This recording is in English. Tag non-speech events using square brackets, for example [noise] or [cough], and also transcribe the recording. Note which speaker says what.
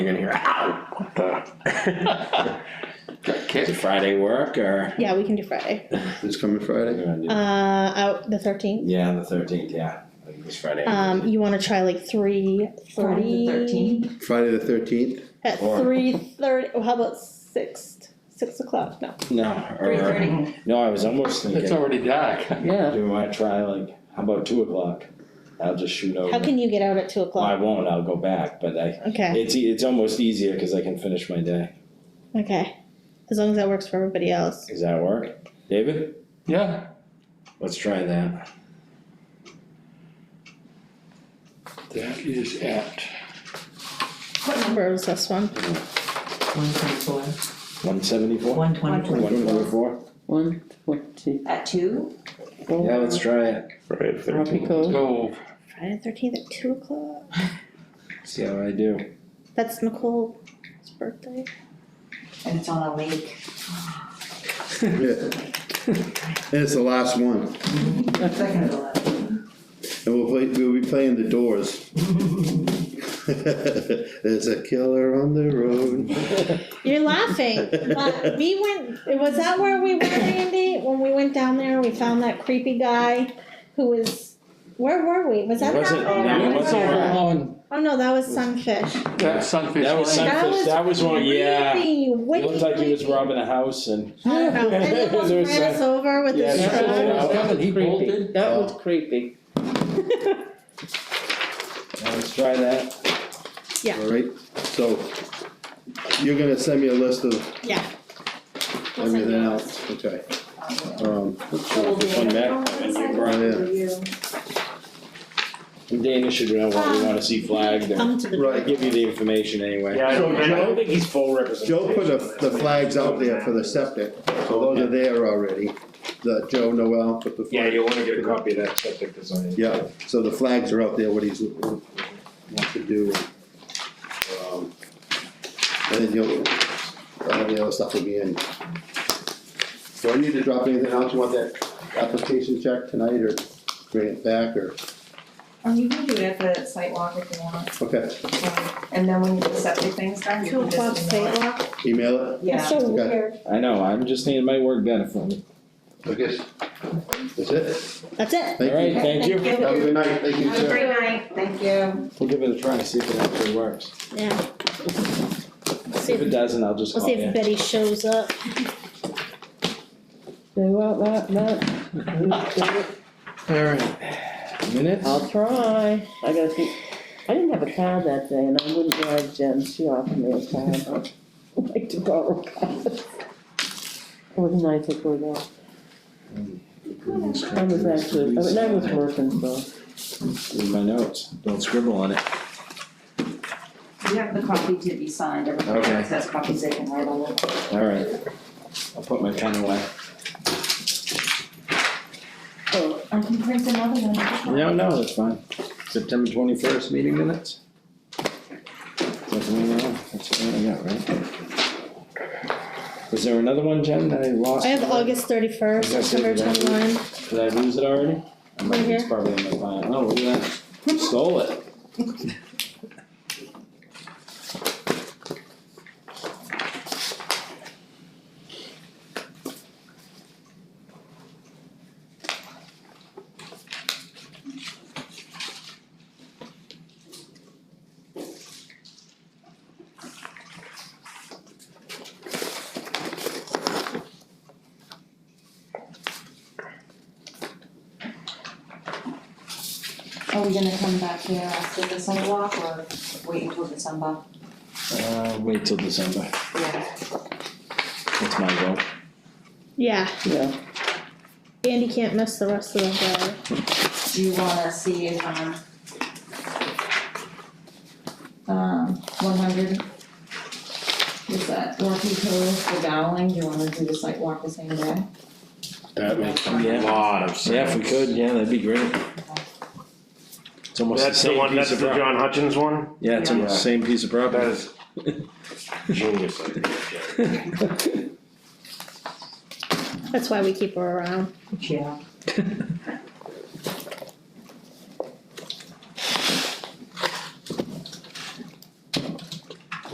Speaker 1: You're gonna hear, ow, what the? Got
Speaker 2: Did
Speaker 1: kicked.
Speaker 2: Friday work or?
Speaker 3: Yeah, we can do Friday.
Speaker 4: It's coming Friday?
Speaker 3: Uh, out the thirteenth.
Speaker 2: Yeah, the thirteenth, yeah, I think it's Friday.
Speaker 3: Um, you wanna try like three
Speaker 5: Friday
Speaker 3: thirty?
Speaker 5: the 13th?
Speaker 4: Friday the thirteenth?
Speaker 3: At
Speaker 2: Or-
Speaker 3: three thirty, well, how about six, six o'clock? No,
Speaker 2: No, or,
Speaker 5: Three thirty.
Speaker 2: no, I was almost
Speaker 1: It's
Speaker 2: thinking,
Speaker 1: already dark.
Speaker 2: yeah, do we wanna try like, how about two o'clock? I'll just shoot over.
Speaker 3: how can you get out at two
Speaker 2: Well, I
Speaker 3: o'clock?
Speaker 2: won't, I'll go back, but I,
Speaker 3: Okay,
Speaker 2: it's, e- it's almost easier, cause I can finish my day.
Speaker 3: okay. As long as that works for everybody else.
Speaker 2: Does that work? David,
Speaker 1: Yeah,
Speaker 2: let's try that.
Speaker 1: that is at,
Speaker 3: What number was this one?
Speaker 5: One twenty-four.
Speaker 2: One seventy-four?
Speaker 5: One twenty-four.
Speaker 2: One twenty-four?
Speaker 6: One twenty-four.
Speaker 5: At two?
Speaker 2: Yeah, let's try it,
Speaker 4: Friday the
Speaker 6: Tropical,
Speaker 1: so,
Speaker 3: Friday the thirteenth at two o'clock?
Speaker 2: see how I do.
Speaker 3: That's Nicole's birthday.
Speaker 5: And it's on a lake.
Speaker 4: Yeah. And it's the last one,
Speaker 5: Second to last.
Speaker 4: and we'll play, we'll be playing the doors. [laughs] There's a killer on the road.
Speaker 3: You're laughing, but we went, was that where we went, Andy? When we went down there, we found that creepy guy who was, where were we? Was that
Speaker 2: It wasn't-
Speaker 3: down
Speaker 2: no,
Speaker 3: there?
Speaker 2: it wasn't
Speaker 3: Where?
Speaker 2: where-
Speaker 1: on,
Speaker 3: Oh, no, that was Sunfish.
Speaker 1: that Sunfish
Speaker 2: That was
Speaker 1: Lane.
Speaker 3: That
Speaker 2: sunfish,
Speaker 3: was
Speaker 2: that was one, Oh, yeah,
Speaker 3: Creepy,
Speaker 2: it
Speaker 3: wicked
Speaker 2: looked like he was
Speaker 3: creepy.
Speaker 2: robbing a house and.
Speaker 3: I don't know,
Speaker 2: [laughs]
Speaker 3: and then
Speaker 2: There
Speaker 3: almost
Speaker 2: was
Speaker 3: ran us
Speaker 2: that-
Speaker 3: over with
Speaker 2: Yeah,
Speaker 3: his
Speaker 2: there was uh,
Speaker 3: truck.
Speaker 2: that.
Speaker 1: He
Speaker 6: creepy,
Speaker 1: bolted.
Speaker 6: that was creepy.
Speaker 3: [laughs]
Speaker 2: Yeah, Let's try that.
Speaker 4: Alright, so you're gonna send me a list of
Speaker 3: Yeah.
Speaker 4: everything else, okay? Um,
Speaker 2: This one back.
Speaker 4: yeah,
Speaker 2: Dana should know what we wanna see flagged and
Speaker 3: Come to the
Speaker 4: Right.
Speaker 2: give you the information anyway.
Speaker 4: I don't- I don't
Speaker 2: think he's full representation.
Speaker 4: Joe put the, the flags out there for the septic, so
Speaker 2: Oh,
Speaker 4: those are there already, the Joe Noel put the flag.
Speaker 2: wanna get
Speaker 4: a
Speaker 2: copy of that septic design.
Speaker 4: Yeah, so the flags are out there, what he's, wants to do. um, And then you'll, all the other stuff will be in. Do I need to drop anything else, you want that application check tonight, or bring it back, or,
Speaker 5: Um, you can do it at the site walk if you want,
Speaker 4: okay,
Speaker 5: um, and then when you get the septic things done, you
Speaker 3: Two
Speaker 5: can
Speaker 3: o'clock
Speaker 5: just. ignore
Speaker 3: state
Speaker 5: it.
Speaker 3: law.
Speaker 4: email it,
Speaker 3: It's
Speaker 5: Yeah,
Speaker 3: so
Speaker 4: Okay.
Speaker 3: weird.
Speaker 2: I know, I'm just needing my work done for me.
Speaker 4: I guess, that's it,
Speaker 3: That's it.
Speaker 2: Alright,
Speaker 4: thank you.
Speaker 2: thank you.
Speaker 4: Have a good night, thank you,
Speaker 5: have a
Speaker 4: sir.
Speaker 5: great night, thank you.
Speaker 2: We'll give it a try, see if it actually works.
Speaker 3: Yeah. We'll see
Speaker 2: If it
Speaker 3: if,
Speaker 2: doesn't, I'll just
Speaker 3: we'll
Speaker 2: call
Speaker 3: see if
Speaker 2: you.
Speaker 3: Betty shows up.
Speaker 6: Do what, what, what?
Speaker 2: Alright. Minutes?
Speaker 6: I'll try, I gotta see, I didn't have a car that day and I wouldn't drive Jen, she offered me a car, and I'd like to borrow cars. It was nice of her though, I was actually, I mean, I was working, so.
Speaker 2: In my notes, don't scribble on it.
Speaker 5: You have the copy to be signed, everybody
Speaker 2: Okay.
Speaker 5: else has copies they can write on it.
Speaker 2: Alright. I'll put my pen away.
Speaker 5: Oh, I can print another one.
Speaker 2: No, no, that's fine. September twenty-first meeting minutes? Nothing wrong, that's what I got, right? Was there another one, Jen, that I lost?
Speaker 3: I have August thirty-first,
Speaker 2: I guess
Speaker 3: September
Speaker 2: it's right.
Speaker 3: twenty-one.
Speaker 2: Did I lose it already? I might-
Speaker 3: Right here.
Speaker 2: It's probably in my file. Oh, look at that. Stole it.
Speaker 5: Are we gonna come back here after the sidewalk or wait until December?
Speaker 2: Uh, wait till December.
Speaker 5: Yeah.
Speaker 2: That's my goal.
Speaker 3: Yeah,
Speaker 6: Yeah,
Speaker 3: Andy can't miss the rest of the
Speaker 5: Do you wanna see if, um, um, one hundred? Is that Rocky Cove for Dowling, do you wanna do the site walk the same day?
Speaker 1: That makes a
Speaker 2: Yeah.
Speaker 1: lot of
Speaker 2: Yeah, if we
Speaker 1: sense.
Speaker 2: could, yeah, that'd be great. It's almost the
Speaker 7: That's the
Speaker 2: same
Speaker 7: one,
Speaker 2: piece
Speaker 7: that's
Speaker 2: of
Speaker 7: the
Speaker 2: property.
Speaker 7: John Hutchins one?
Speaker 2: Yeah, it's almost the same piece of
Speaker 7: That
Speaker 2: property.
Speaker 7: is genius idea, Jack.
Speaker 2: [laughs]
Speaker 3: guy. That's why we keep her around.
Speaker 5: Yeah.